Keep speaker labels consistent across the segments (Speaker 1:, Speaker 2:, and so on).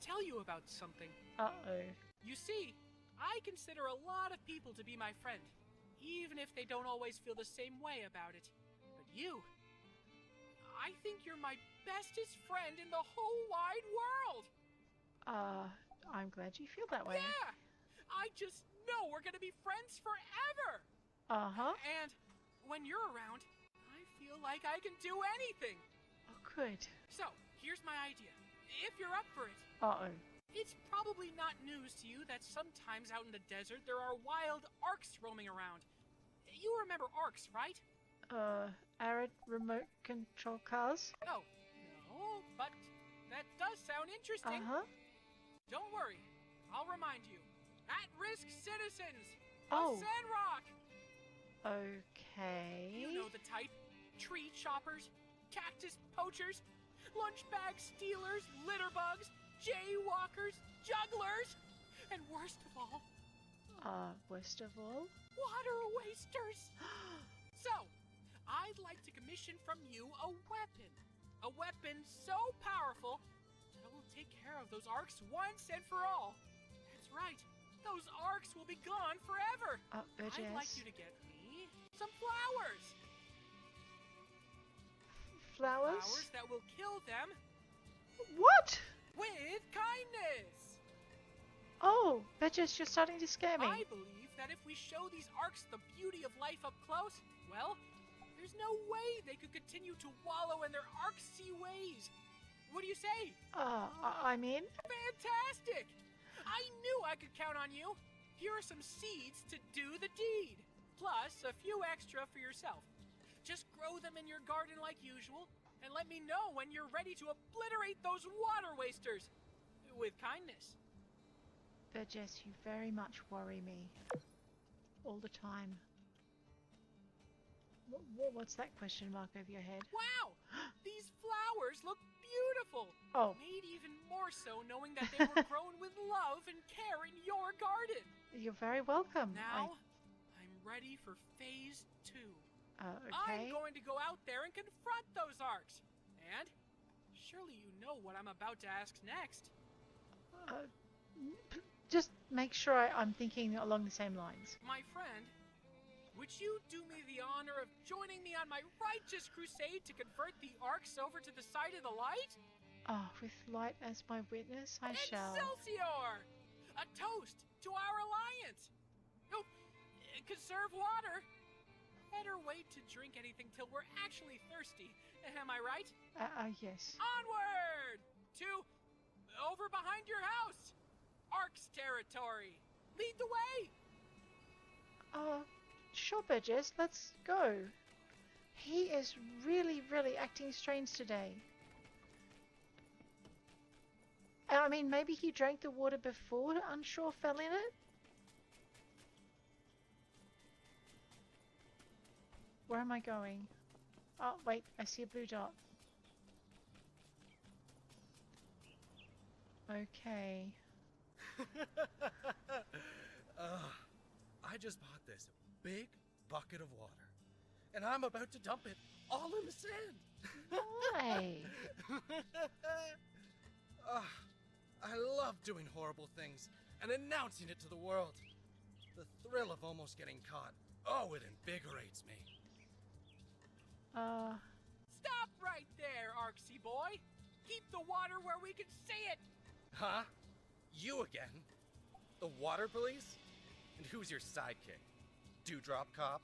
Speaker 1: tell you about something.
Speaker 2: Uh-oh.
Speaker 1: You see, I consider a lot of people to be my friend, even if they don't always feel the same way about it. But you, I think you're my bestest friend in the whole wide world.
Speaker 2: Uh, I'm glad you feel that way.
Speaker 1: Yeah, I just know we're gonna be friends forever.
Speaker 2: Uh-huh.
Speaker 1: And when you're around, I feel like I can do anything.
Speaker 2: Oh, good.
Speaker 1: So, here's my idea. If you're up for it,
Speaker 2: Uh-oh.
Speaker 1: It's probably not news to you that sometimes out in the desert there are wild arcs roaming around. You remember arcs, right?
Speaker 2: Uh, arid remote control cars?
Speaker 1: Oh, no, but that does sound interesting.
Speaker 2: Uh-huh.
Speaker 1: Don't worry, I'll remind you. At risk citizens!
Speaker 2: Oh.
Speaker 1: Of Sandrock!
Speaker 2: Okay.
Speaker 1: You know the type tree choppers, cactus poachers, lunch bag stealers, litter bugs, jaywalkers, jugglers, and worst of all,
Speaker 2: Uh, worst of all?
Speaker 1: water wasters. so, I'd like to commission from you a weapon. A weapon so powerful that it will take care of those arcs once and for all. That's right, those arcs will be gone forever.
Speaker 2: Uh, urges.
Speaker 1: I'd like you to get me some flowers.
Speaker 2: Flowers?
Speaker 1: Flowers that will kill them
Speaker 2: What?
Speaker 1: with kindness.
Speaker 2: Oh, Burgess, you're starting to scare me.
Speaker 1: I believe that if we show these arcs the beauty of life up close, well, there's no way they could continue to wallow in their arcsy ways. What do you say?
Speaker 2: Uh, I- I'm in.
Speaker 1: Fantastic! I knew I could count on you. Here are some seeds to do the deed, plus a few extra for yourself. Just grow them in your garden like usual, and let me know when you're ready to obliterate those water wasters. With kindness.
Speaker 2: Burgess, you very much worry me. All the time. What, what's that question mark over your head?
Speaker 1: Wow! These flowers look beautiful!
Speaker 2: Oh.
Speaker 1: Made even more so knowing that they were grown with love and care in your garden!
Speaker 2: You're very welcome.
Speaker 1: Now, I'm ready for phase two.
Speaker 2: I, uh,
Speaker 1: I'm
Speaker 2: okay.
Speaker 1: going to go out there and confront those arcs! And, surely you know what I'm about to ask next.
Speaker 2: Uh, p- just make sure I, I'm thinking along the same lines.
Speaker 1: My friend, would you do me the honor of joining me on my righteous crusade to convert the arcs over to the side of the light?
Speaker 2: Ah, with light as my witness, I shall.
Speaker 1: Excelsior! A toast to our alliance! No, uh, conserve water! Better wait to drink anything till we're actually thirsty. Am I right?
Speaker 2: Uh, uh, yes.
Speaker 1: Onward! To over behind your house! Ark's territory! Lead the way!
Speaker 2: Uh, sure, Burgess, let's go. He is really, really acting strange today. I mean, maybe he drank the water before Unsure fell in it? Where am I going? Oh, wait, I see a blue dot. Okay.
Speaker 3: Ugh, Uh, I just bought this big bucket of water, and I'm about to dump it all in the sand.
Speaker 2: Why?
Speaker 3: Ugh, Ah, I love doing horrible things and announcing it to the world. The thrill of almost getting caught. Oh, it invigorates me.
Speaker 2: Uh,
Speaker 1: Stop right there, Arksy boy! Keep the water where we can see it!
Speaker 3: Huh? You again? The water police? And who's your sidekick? Dewdrop cop?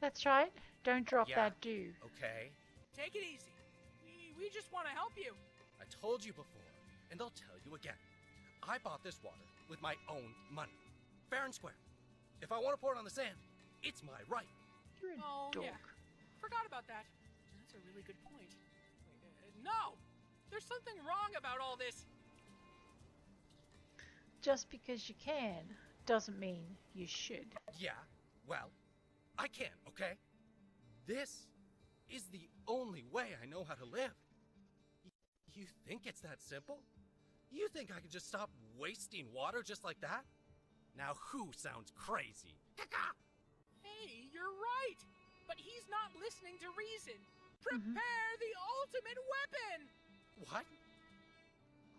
Speaker 2: that's right. Don't drop
Speaker 3: Yeah.
Speaker 2: that dew.
Speaker 3: Okay.
Speaker 1: Take it easy. We, we just want to help you.
Speaker 3: I told you before, and I'll tell you again. I bought this water with my own money. Fair and square. If I want to pour it on the sand, it's my right.
Speaker 2: You're a
Speaker 1: Oh,
Speaker 2: dork.
Speaker 1: yeah. Forgot about that. That's a really good point. Wait, uh, no! There's something wrong about all this.
Speaker 2: Just because you can doesn't mean you should.
Speaker 3: Yeah, well, I can, okay? This is the only way I know how to live. Y- You think it's that simple? You think I can just stop wasting water just like that? Now who sounds crazy?
Speaker 1: Hey, you're right! But he's not listening to reason. Prepare the ultimate weapon!
Speaker 3: What?